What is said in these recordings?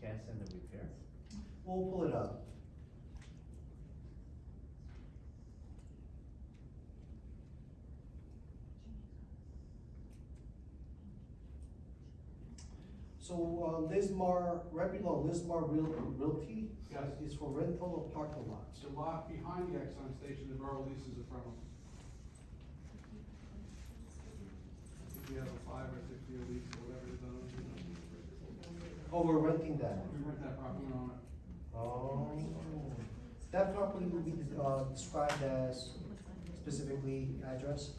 finance and the repair? We'll pull it up. So, uh, Lismar, Repulon Lismar Real- Realty uh, Yes. is for rental of parking lots. It's a lot behind the Exxon station, the borough leases it from them. I think we have a five or six year lease or whatever it's on. Oh, we're renting that. We rent that property and own it. Oh. That property will be, uh, described as specifically address?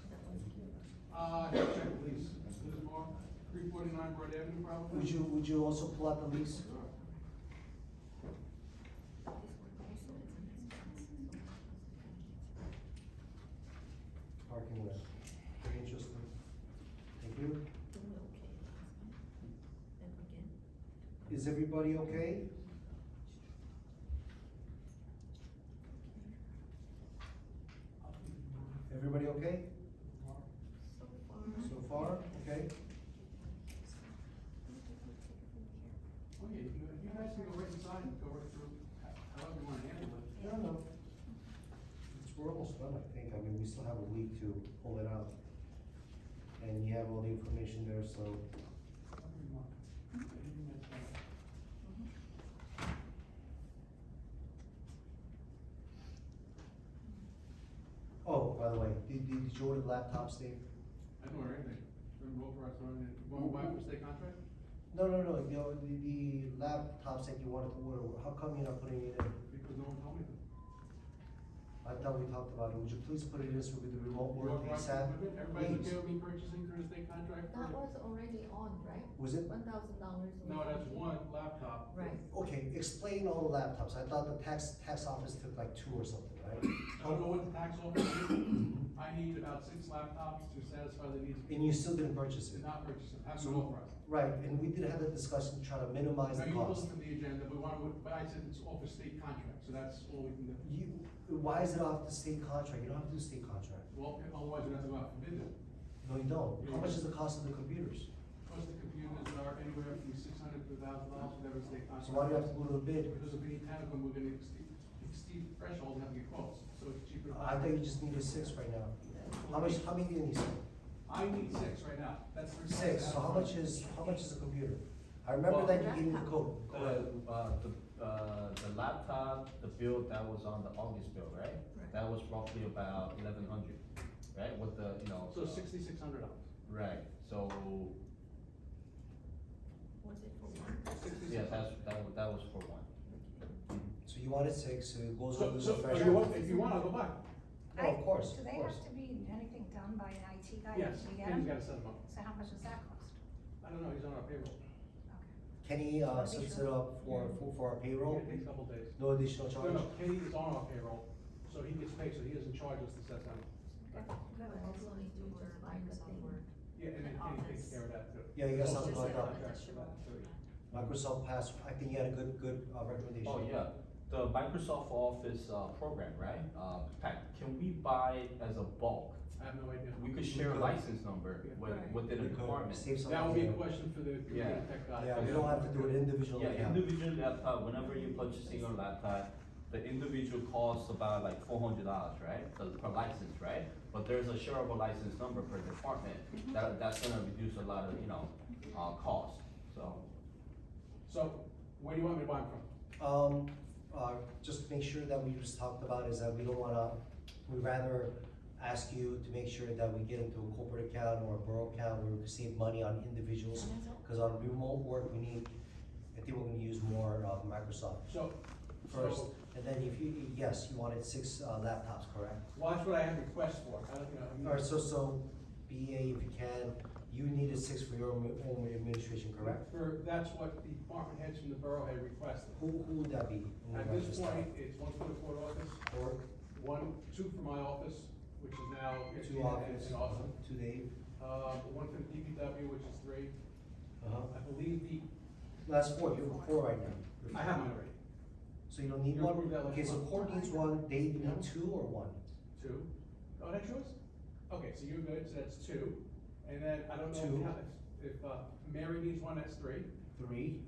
Uh, here, check the lease. There's more, three forty-nine Broad Avenue probably. Would you, would you also pull out the lease? Parking lot. Very interesting. Thank you. Is everybody okay? Everybody okay Mm-hmm. so far? Okay? Oh, yeah, you, you guys can go right inside and go right through, how- however you wanna handle it. I don't know. It's, we're almost done, I think. I mean, we still have a week to pull it out. And you have all the information there, so. However you want. Anything that's, uh, Oh, by the way, did, did you order laptops, Dave? I don't know anything. Don't vote for us, don't, won't buy for state contract? No, no, no, the, the, the laptops that you wanted to order, how come you're not putting it in? Because no one told me that. I thought we talked about it, would you please put it in so with the remote You work want prices ASAP? with it? Please. Everybody's okay with me purchasing through the state contract? That was already on, right? Was it? One thousand dollars. No, that's one laptop. Right. Okay, explain all the laptops, I thought the tax, tax office took like two or something, right? I don't know what the tax office is. I need about six laptops to satisfy the needs. of And you still didn't purchase it? Did not purchase them, have So- no authorized. Right, and we did have a discussion to try to minimize Now, the you cost. looked at the agenda, but one, would- but I said it's off a state contract, so that's all we can do. You, why is it off the state contract? You don't have to do state contract. Well, otherwise you'd have to go out for bid it. No, you don't. How much is the cost of the computers? Plus the computers are anywhere from six hundred to thousand dollars, whatever the state contract. So why do you have to go to a bid? Because if we need ten of them, we're gonna exceed, exceed the threshold and have to get quotes, so it's cheaper. to I buy. thought you just needed six right now. How much, how many do you need? I need six right now, that's. the request Six, so how out. much is, how much is a computer? I remember that you gave me the code. Uh, uh, the, uh, the laptop, the bill that was on the August bill, right? Right. That was roughly about eleven hundred, right, with the, you know. So sixty-six hundred dollars. Right, so, Was it for one? yeah, that's, that, wa- that was for one. So you wanted six, so it goes over So, the so, if you want, threshold. if you wanna go back, Oh, of course, of Do they course. have to be, anything done by an IT guy? yes, We he's get 'em? gotta set them up. So how much does that cost? I don't know, he's on our payroll. Okay. Kenny, uh, sets it up for, for- for our payroll, It takes a couple days. no additional No, charge. no, Kenny is on our payroll, so he gets paid, so he doesn't charge us to set them. up. But also need to order Microsoft Word. Yeah, and then Kenny takes care of that too. Yeah, you got something Just like like that. an additional. Microsoft Pass, I think you had a good, good uh, recommendation. Oh, yeah, the Microsoft Office, uh, program, right, uh, Pat, can we buy it as a bulk? I have no idea. We could share a could. license number Yeah. with, Right. within a You could department. Save some. That would be a money. question for the Yeah. computer tech guy. Yeah, we don't have to do it individually. Yeah, individual laptop, whenever you're purchasing a laptop, the individual costs about like four hundred dollars, right? Per- Per license, right? But there's a shareable license number per department, that, that's gonna reduce a lot of, you know, uh, cost, so. So, where do you want me to buy them from? Um, uh, just make sure that we just talked about is that we don't wanna, we'd rather ask you to make sure that we get into a corporate account or a borough account where we can save money on individuals. Cause on remote work, we need, I think we're gonna use more of Microsoft So, first. so, And then if you, yes, you wanted six uh, laptops, correct? well, that's what I have requests for, I don't, you know. I'm- Alright, so, so BA, if you can, you needed six for your own own administration, correct? For, that's what the department heads from the borough had requested. Who, who would that be? At this point, it's one for the court office, Or one, two for my office, which is now. two office, in Austin. two Dave? Uh, one for the DPW, which is three. Uh-huh. I believe the, That's four, you're at four right now. I have mine already, So you don't need You one? approved that last Okay, so month. Court needs one, Dave, you No. need two or one? two. Oh, that's yours? Okay, so you're good, so that's two. And then I don't know Two. if- if, if uh, Mary needs one, that's three. Three?